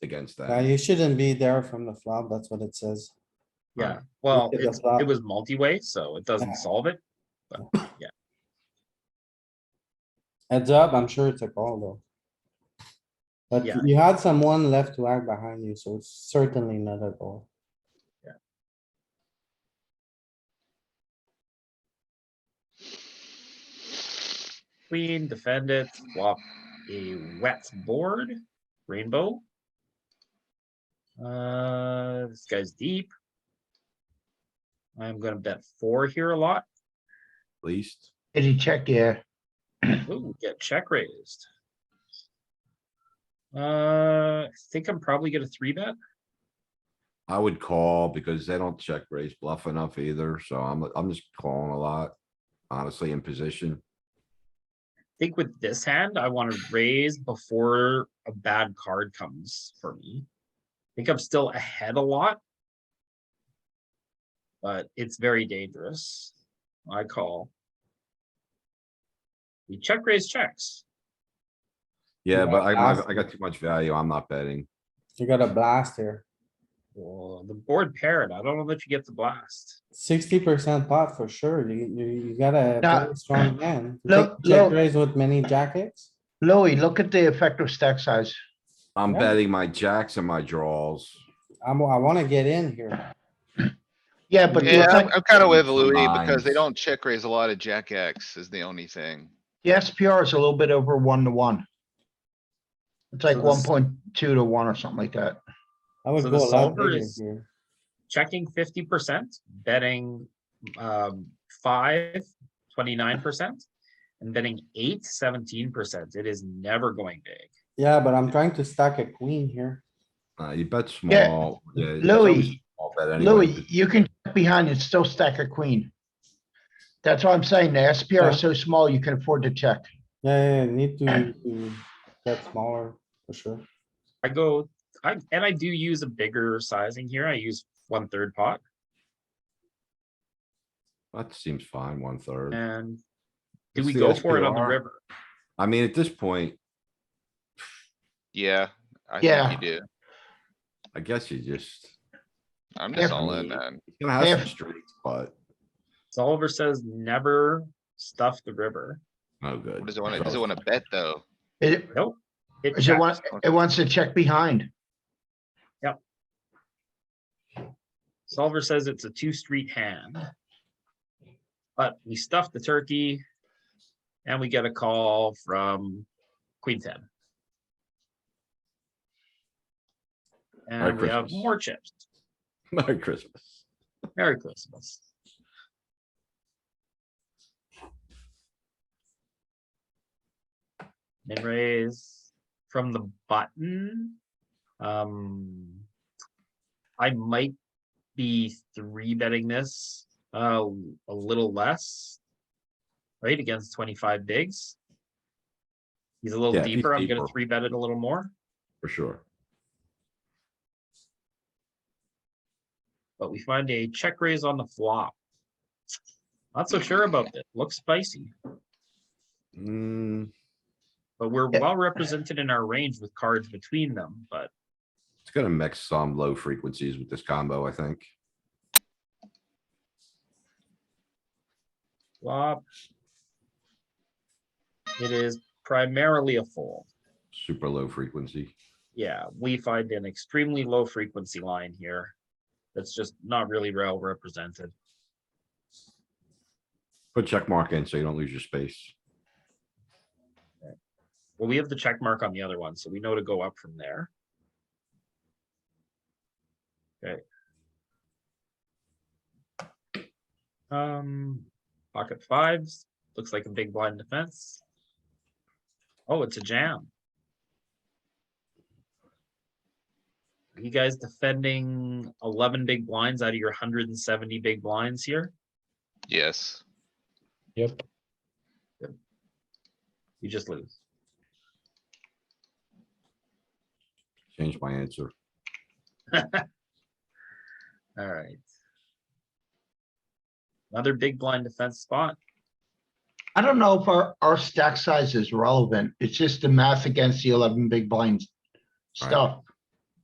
against Uh, that. you shouldn't be there from the flop, that's what it says. Yeah, well, at the it's, flop. it was multi-way, so it Yeah. doesn't solve it. Heads up, I'm sure it's a call though. But Yeah. you had someone left to act behind you, so it's certainly not a goal. Queen, defend it, flop a wet board, rainbow. Uh, this guy's deep. I'm gonna bet four here a lot. Least, Did he check? Yeah. Ooh, get check raised. Uh, I think I'm probably gonna three bet. I would call because they don't check raise bluff enough either, so I'm, I'm just calling a lot. Honestly, in position, I think with this hand, I wanna raise before a bad card comes for me. I think I'm still ahead a lot. But it's very dangerous. I call. We check raise checks. yeah, Yeah, but I, I- ask I got too much value, I'm not betting. You got a blast here, Well, the board paired, I don't know that you get the blast. sixty percent pot for sure, you, you, you got a Nah. very strong hand. You Look, think Check look. raise with many jackets, Louis, look at the effective stack size. I'm Yeah. betting my jacks and my draws. I'm, I wanna get in here, Yeah, but Yeah, look I'm, at I'm kinda with the Louis because they lines. don't check raise a lot of jack X is the only thing. the SPR is a little bit over one to one. It's like So this- one point two to one or something like that. I would So go the a lot solver bigger is- here. Checking fifty percent, betting um five, twenty-nine percent. And betting eight, seventeen percent. It is never going big. Yeah, but I'm trying to stack a queen here, Uh, you bet Yeah, small. Yeah, it's always Louis, small bet anyway, Louis, you can check behind and still stack a queen. That's what I'm saying. The SPR is so small, you can afford to check. yeah, yeah, yeah, need to, to get smaller, for sure. I go, I, and I do use a bigger sizing here. I use one third pot That seems fine, one third. and do It's we the go for it on the SPR. river? I mean, at this point, Yeah, I Yeah. think you do. I guess you just, I'm just Yeah. all in, man. he's gonna have Yeah. some straights, but Oliver says never stuff the river. no good. What does it wanna, So- does it wanna bet though? It, Nope. It it checks. wants, it wants to check behind. Solver says it's a two street hand. But we stuff the turkey. And we get a call from queen ten. And we have Christmas. more chips. Merry Christmas. Merry Christmas. Min raise from the button. Um. I might be three betting this, uh, a little less. Right, against twenty-five bigs. He's a little Yeah, he's deeper. I'm gonna deeper. three bet it a little more, For sure. but we find a check raise on the flop. Not so sure about that. Looks spicy. Hmm, But we're Yeah. well represented in our range with cards between them, but it's gonna mix some low frequencies with this combo, I think. flop. It is primarily a fold. Super low frequency. Yeah, we find an extremely low frequency line here. That's just not really well represented. Put check mark in so you don't lose your space. Well, we have the check mark on the other one, so we know to go up from there. Okay. Um, pocket fives, looks like a big blind defense. Oh, it's a jam. Are you guys defending eleven big blinds out of your hundred and seventy big blinds here? Yes. You just lose. Change my answer. Alright. Another big blind defense spot. I don't know if our, our stack size is relevant. It's just the math against the eleven big blinds Right. stuff.